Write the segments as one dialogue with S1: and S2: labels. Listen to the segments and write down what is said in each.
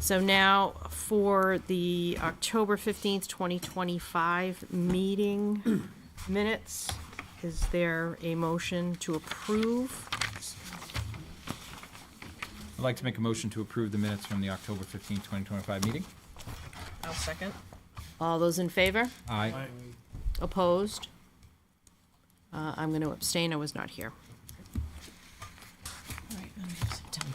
S1: So now for the October 15th, 2025 meeting minutes, is there a motion to approve?
S2: I'd like to make a motion to approve the minutes from the October 15, 2025 meeting.
S3: I'll second.
S1: All those in favor?
S2: Aye.
S1: Opposed? Uh, I'm going to abstain, I was not here.
S3: All right, let me have September.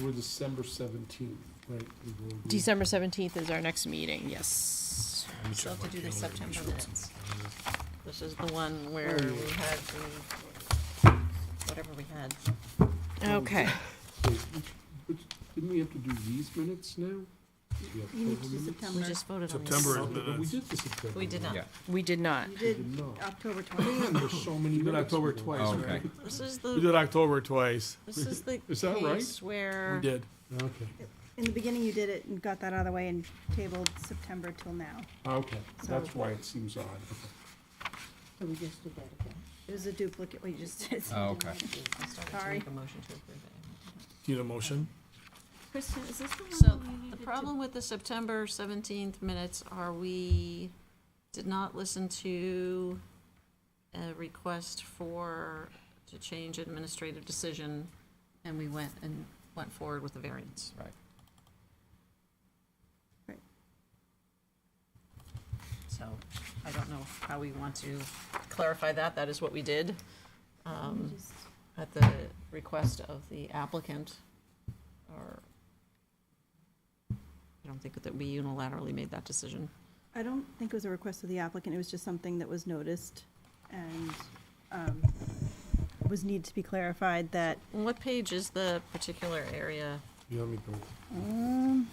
S4: We're December 17th, right? we will be-
S1: December 17th is our next meeting, yes.
S3: We still have to do the September minutes. This is the one where
S4: Oh, yeah.
S3: we had the, whatever we had.
S1: Okay.
S4: Wait, which- which- Didn't we have to do these minutes now? The
S5: You need to
S4: October
S5: do
S4: minutes?
S1: We
S5: September.
S1: just voted on this.
S6: September
S4: Oh,
S6: is
S4: but We
S6: minutes.
S4: did the September.
S3: We did
S4: minutes.
S3: not.
S2: Yeah.
S1: We did not.
S5: You
S4: did
S5: did
S4: not.
S5: October 20th.
S4: Man, there's so many
S6: You did
S4: minutes.
S6: October
S4: we
S6: twice,
S4: lost.
S2: Oh, okay.
S3: This is
S6: We did
S3: the,
S6: October twice.
S3: this is the
S4: Is that right?
S3: case where.
S6: We did.
S4: Okay,
S5: In the beginning, you did it and got that out of the way and tabled September till now.
S4: okay, that's
S5: So-
S4: why it seems odd.
S5: So we just did that again. It was a duplicate, we just did.
S2: Oh, okay.
S3: I started to
S5: Sorry.
S3: make a motion to approve it.
S6: Do you need a motion?
S5: Kristen, is this the
S3: So the problem with the September seventeenth minutes are we did not listen to a request for, to change administrative decision, and we went and went forward with the variance.
S2: Right.
S5: Right.
S3: So I don't know how we want to clarify that. That is what we did um, at the request of the applicant. Or I don't think that we unilaterally made that decision.
S5: I don't think it was a request of the applicant, it was just something that was noticed and um, was need to be clarified that,
S3: And What page is the particular area?
S4: You want me to go
S5: um,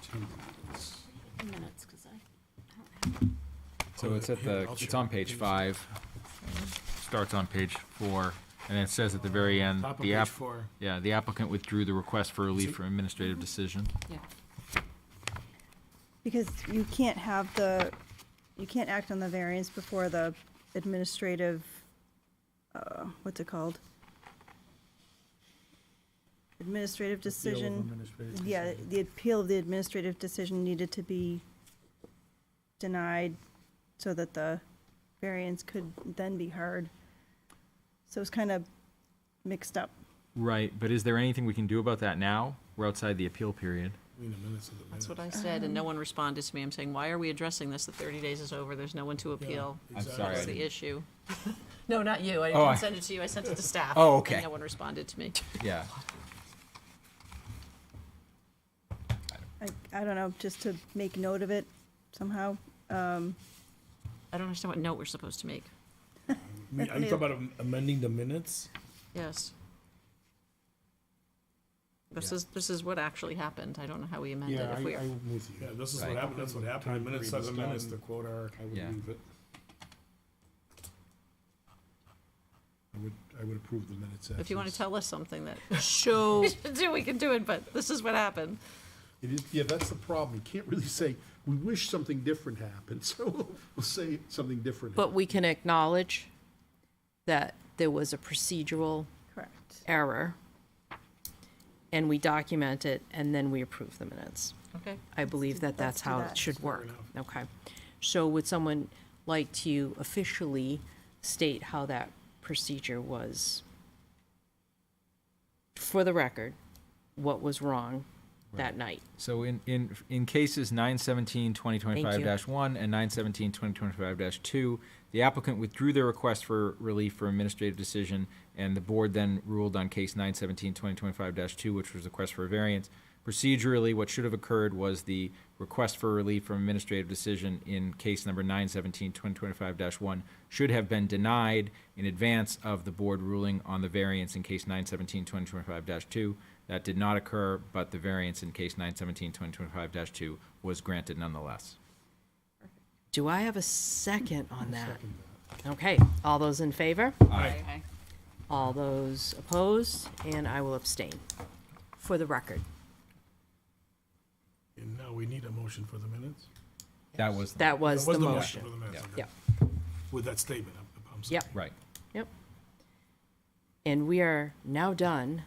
S4: September minutes?
S7: minutes, because I
S2: So it's at
S6: Here,
S2: the,
S6: I'll
S2: it's
S6: share.
S2: on page five, starts on page four, and it says at the very end,
S6: Top of
S2: the
S6: page
S2: app,
S6: four.
S2: yeah, the applicant withdrew the request for
S6: See?
S2: relief from administrative decision.
S3: Yeah.
S5: because you can't have the, you can't act on the variance before the administrative, uh, what's it called? Administrative decision, yeah, the appeal of the administrative decision needed to be denied so that the variance could then be heard. So it's kind of mixed up.
S2: Right, but is there anything we can do about that now? We're outside the appeal period.
S6: We need a minutes of the
S3: That's
S6: minutes.
S3: what I said,
S2: Um,
S3: and no one responded to me. I'm saying, why are we addressing this? The 30 days is over. There's no one to appeal.
S2: I'm sorry,
S3: That's
S2: I
S3: the
S2: didn't,
S3: issue. No, not you. I
S2: Oh, I-
S3: didn't send it to you. I sent it to staff.
S2: Oh,
S3: and
S2: okay.
S3: no one responded to me.
S2: yeah.
S5: I, I don't know, just to make note of it somehow. Um,
S3: I don't understand what note we're supposed to make.
S8: Me- Are you talking about am- amending the minutes?
S3: Yes. This is, this is what actually happened. I don't know how we amended.
S4: Yeah, I,
S3: If we,
S4: I'm with
S6: Yeah,
S4: you.
S6: this is
S2: Right.
S6: what happened, that's what happened. The minutes are the
S4: Time
S6: minutes,
S4: agreement's
S6: the quote are.
S4: I would
S2: Yeah.
S4: leave it. I would, I would approve the minutes.
S3: if you want to
S4: as
S3: tell us something that
S1: Show
S3: we should do, we can do it, but this is what happened.
S4: It is, yeah, that's the problem. You can't really say, we wish something different happened, so we'll say something different.
S1: But we can acknowledge that there was a procedural
S5: correct.
S1: error, and we document it, and then we approve the minutes.
S3: Okay.
S1: I believe that that's
S5: let's do
S1: how it
S5: that.
S1: should work. Okay. So would someone like to officially state how that procedure was? For the record, what was wrong that night?
S2: So in, in, in cases 917, 2025-1 and 917, 2025-2, the applicant withdrew their request for relief for administrative decision, and the board then ruled on case 917, 2025-2, which was a request for a variance. Procedurally, what should have occurred was the request for relief from administrative decision in case number 917, 2025-1 should have been denied in advance of the board ruling on the variance in case 917, 2025-2. That did not occur, but the variance in case 917, 2025-2 was granted nonetheless.
S1: Do I have a second on that? Okay, all those in favor?
S2: Aye.
S1: All those opposed, and I will abstain, for the record.
S6: And now we need a motion for the minutes.
S2: That was,
S1: That was
S6: That
S1: the motion.
S6: for the minutes, okay.
S1: Yep,
S6: With that statement, I'm- I'm sorry.
S1: yep,
S2: right.
S1: yep. And we are now done